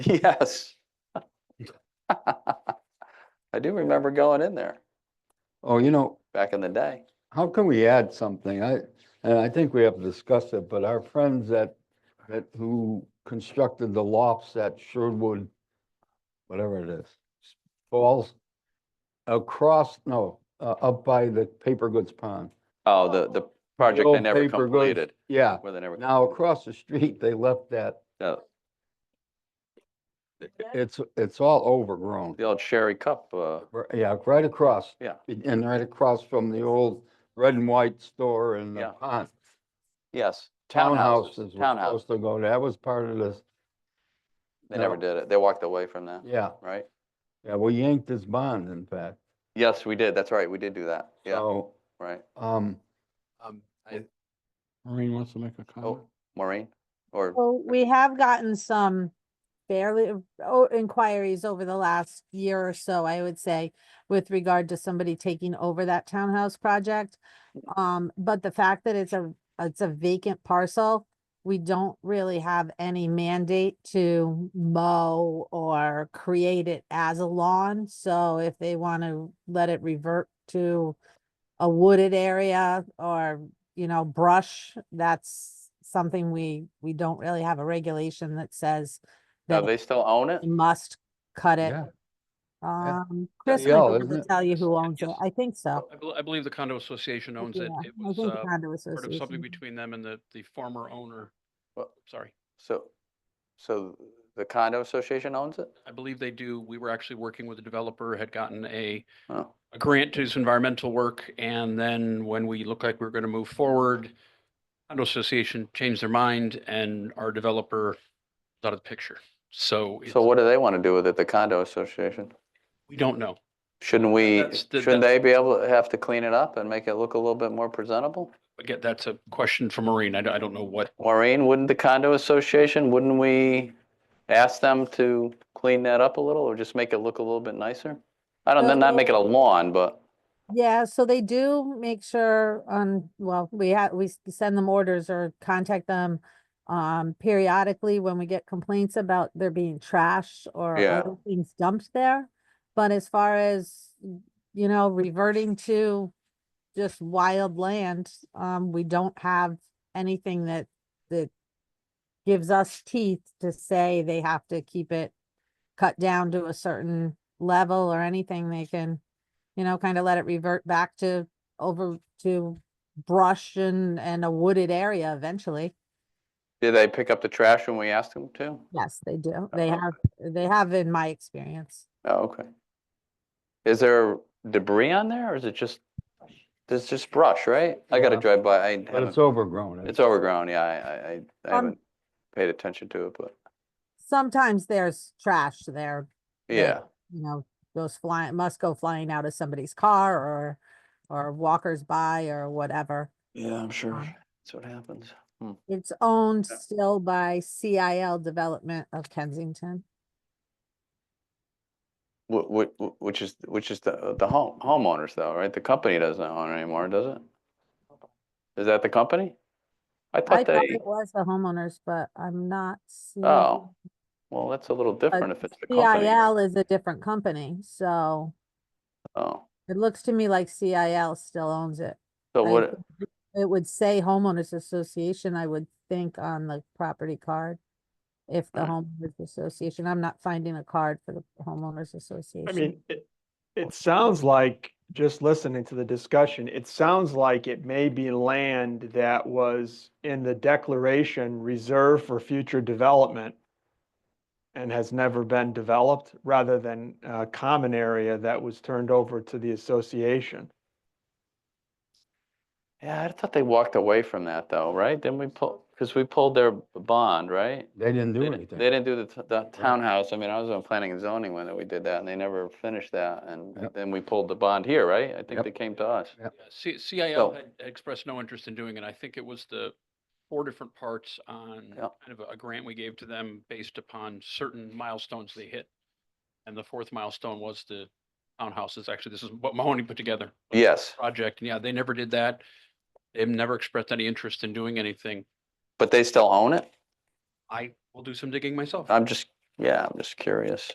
Yes. I do remember going in there Oh, you know, back in the day. how can we add something? I, and I think we have discussed it, but our friends that, that who constructed the lofts at Sherwood, whatever it is, falls across, no, uh, up by the paper goods pond. Oh, the, the project they old never paper goods- completed, Yeah, where they never. now across the street, they left that, uh, it's, it's all overgrown. The old Sherry Cup, uh, Ri- Yeah, right across. Yeah. And right across from the old red and white store and Yeah. the pond. yes. Townhouses were Townhouse, supposed to go, that was part of this, they never no. did it. They walked away from that, yeah. right? Yeah, we yanked his bond, in fact. Yes, we did. That's right. We did do that. Yeah, So, right. um, Um, I, Well, Maureen wants to make a comment. Oh, Maureen? Or, Well, we have gotten some fairly, oh, inquiries over the last year or so, I would say, with regard to somebody taking over that townhouse project. Um, but the fact that it's a, it's a vacant parcel, we don't really have any mandate to mow or create it as a lawn. So if they want to let it revert to a wooded area or you know, brush, that's something we, we don't really have a regulation that says no, that they still own it? you must cut it. yeah, Um, Chris yeah, might be able isn't to it? tell you who owns it. Yes. I think so. I bel- I believe the condo association owns Yeah, it. It I was think uh, condo sort of something association. between them and the, the former owner. Well- Sorry, So, so the condo association owns it? I believe they do. We were actually working with the developer, had gotten a, Oh, a grant to do some environmental work. And then when we looked like we were going to move forward, condo association changed their mind and our developer was out of the picture. So so it's- what do they want to do with it, the condo association? we don't know. Shouldn't we, that's the- shouldn't they be able, to have to clean it up and make it look a little bit more presentable? Again, that's a question for Maureen. I don't, I don't know what, Maureen, wouldn't the condo association, wouldn't we ask them to clean that up a little or just make it look a little bit nicer? I don't, not make it a lawn, but, Yeah, so they do make sure on, well, we have, we s- send them orders or contact them um periodically when we get complaints about there being trash or Yeah. other things dumped there. But as far as, you know, reverting to just wild land, um, we don't have anything that that gives us teeth to say they have to keep it cut down to a certain level or anything they can you know, kind of let it revert back to over to brush and, and a wooded area eventually. did they pick up the trash when we asked them to? Yes, they do. They Uh, have, they have in my experience. Oh, okay. Is there debris on there or is it just, there's just brush, right? I gotta Yeah. drive by, I but it's haven't, overgrown. it's overgrown, yeah, I, I- I, I Um, haven't paid attention to it, but, Sometimes there's trash there, Yeah. yeah. you know, goes flying, must go flying out of somebody's car or, or walkers by or whatever. Yeah, I'm sure. Um, That's what happens. It's owned Yeah. still by CIL Development of Kensington. Which, which is, which is the, the home, homeowners though, right? The company doesn't own it anymore, does it? Is that the company? I I thought thought they, it was the homeowners, but I'm not seeing. oh, well, that's a little but different if it's the company. CIL is a different company, so. Oh, It looks to me like CIL still owns it. so I what, think It would say homeowners association, I would think on the property card. If the homeowners association, I'm not finding a card for the homeowners I association. mean, it, it sounds like, just listening to the discussion, it sounds like it may be land that was in the declaration reserved for future development and has never been developed, rather than a common area that was turned over to the association. yeah, I thought they walked away from that though, right? Didn't we pull, because we pulled their bond, right? They didn't They do didn't- They didn't anything. do the, t- the townhouse. I mean, I was on planning and zoning when we did that and they never finished that. And Yep. then we pulled the bond here, right? I think Yep. they came to us. Yeah, C- CIL So- had had expressed no interest in doing it. I think it was the four different parts on Yeah. kind of a- a grant we gave to them based upon certain milestones they hit. And the fourth milestone was the townhouses. Actually, this is what Mahoney put together. was the Yes. Project. And yeah, they never did that. They've never expressed any interest in doing anything. But they still own it? I will do some digging myself. I'm just, yeah, I'm just curious.